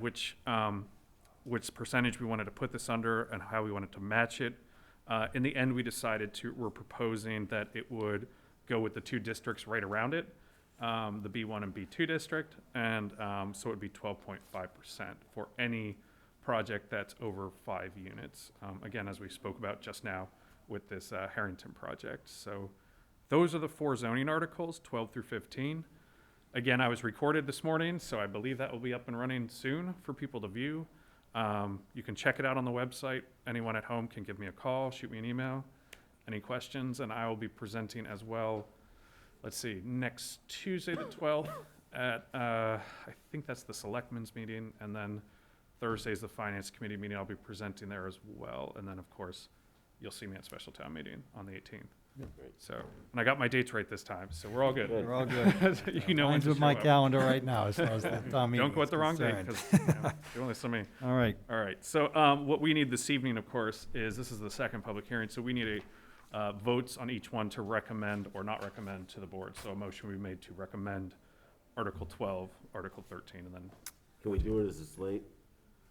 which, um, which percentage we wanted to put this under and how we wanted to match it. Uh, in the end, we decided to, we're proposing that it would go with the two districts right around it, um, the B1 and B2 district, and, um, so it'd be 12.5% for any project that's over five units. Um, again, as we spoke about just now with this, uh, Harrington project. So those are the four zoning articles, 12 through 15. Again, I was recorded this morning, so I believe that will be up and running soon for people to view. Um, you can check it out on the website. Anyone at home can give me a call, shoot me an email, any questions, and I will be presenting as well. Let's see, next Tuesday the twelfth at uh, I think that's the selectmen's meeting, and then Thursday's the finance committee meeting. I'll be presenting there as well, and then of course, you'll see me at special town meeting on the eighteenth. So, and I got my dates right this time, so we're all good. Good. We're all good. you know when Mine's to with show my up. calendar right now as far as that town meeting Don't go is at the wrong date concerned. because you know, there are only so many. All right, All right, so um, what we need this evening, of course, is, this is the second public hearing, so we need a, uh, votes on each one to recommend or not recommend to the board. So a motion we made to recommend Article 12, Article 13, and then Can we do it as it's late?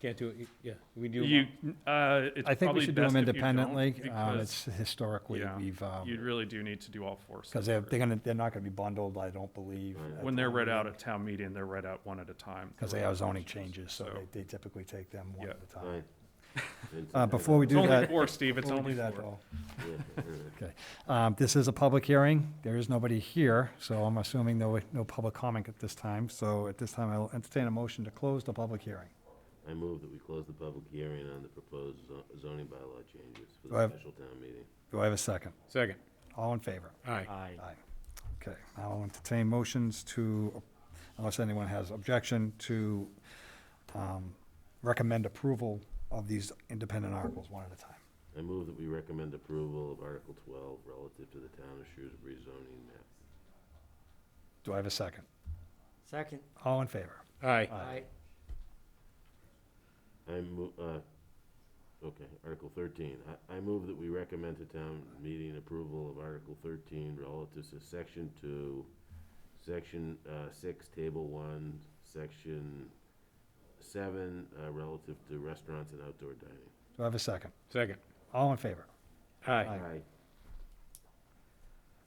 Can't do it, yeah, we do. you, uh, it's I think we probably should do them best if you don't, independently. Um, It's Because, historically, yeah, we've, um, you really do need to do all four. because they're, they're gonna, they're not gonna be bundled, I don't believe. at When they're town read meeting, out at town meeting, they're read out one at a time. Because they have zoning changes, so So- they- they typically take them one Yeah. at a time. Aye. And Uh, today- before we It's do only that. four, Steve, it's before we only do that, four. though, Yeah, Okay, um, this is a public hearing. There is nobody here, so I'm assuming no, no public comment at this time. So at this time, I'll entertain a motion to close the public hearing. I move that we close the public hearing on the proposed zo- zoning bylaw changes for Do I the have- special town meeting. Do I have a second? Second. All in favor? Aye. Aye. Okay, I'll entertain motions to, unless anyone has objection, to um, recommend approval of these independent articles one at a time. I move that we recommend approval of Article 12 relative to the town of Shrewsbury zoning map. Do I have a second? Second. All in favor? Aye. Aye. I move, okay, Article 13. I- I move that we recommend to town meeting approval of Article 13 relative to Section 2, Section uh, 6, Table 1, Section 7, uh, relative to restaurants and outdoor dining. Do I have a second? Second. All in favor? Aye. Aye.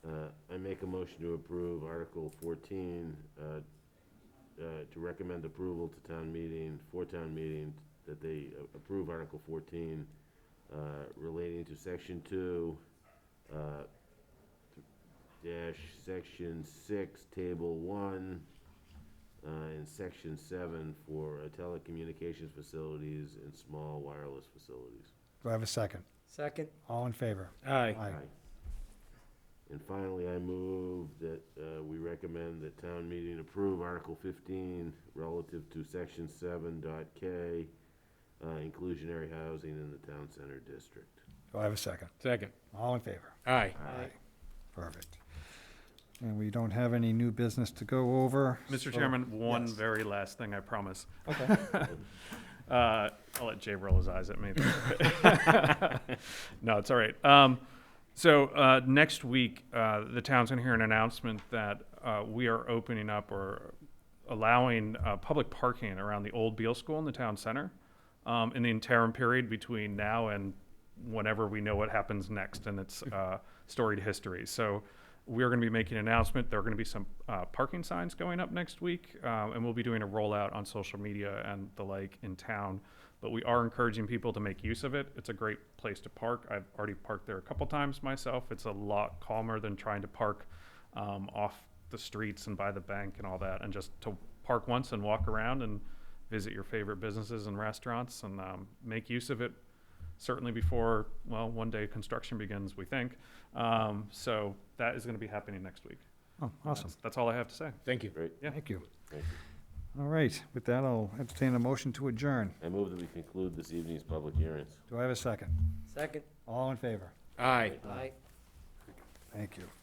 Uh, I make a motion to approve Article 14, uh, uh, to recommend approval to town meeting, for town meeting, that they uh, approve Article 14 uh, relating to Section 2, uh, dash, Section 6, Table 1, uh, and Section 7 for uh, telecommunications facilities and small wireless facilities. Do I have a second? Second. All in favor? Aye. Aye. And finally, I move that uh, we recommend that town meeting approve Article 15 relative to Section 7 dot K, uh, inclusionary housing in the town center district. Do I have a second? Second. All in favor? Aye. Aye. Perfect. And we don't have any new business to go over. so- Mr. Chairman, one Yes. very last thing, I promise. Okay. Uh, I'll let Jay roll his eyes at me. no, it's all right. Um, so uh, next week, uh, the town's going to hear an announcement that uh, we are opening up or allowing uh, public parking around the old Beal School in the town center um, in the interim period between now and whenever we know what happens next and its uh, storied history. So we're going to be making an announcement. There are going to be some uh, parking signs going up next week, um, and we'll be doing a rollout on social media and the like in town. But we are encouraging people to make use of it. It's a great place to park. I've already parked there a couple times myself. It's a lot calmer than trying to park um, off the streets and by the bank and all that, and just to park once and walk around and visit your favorite businesses and restaurants and um, make use of it certainly before, well, one day construction begins, we think. Um, so that is going to be happening next week. Oh, awesome. That's, that's all I have to say. Thank you. Yeah, Yeah. Thank you. Thank you. All right, with that, I'll entertain a motion to adjourn. I move that we conclude this evening's public hearings. Do I have a second? Second. All in favor? Aye. Aye. Thank you.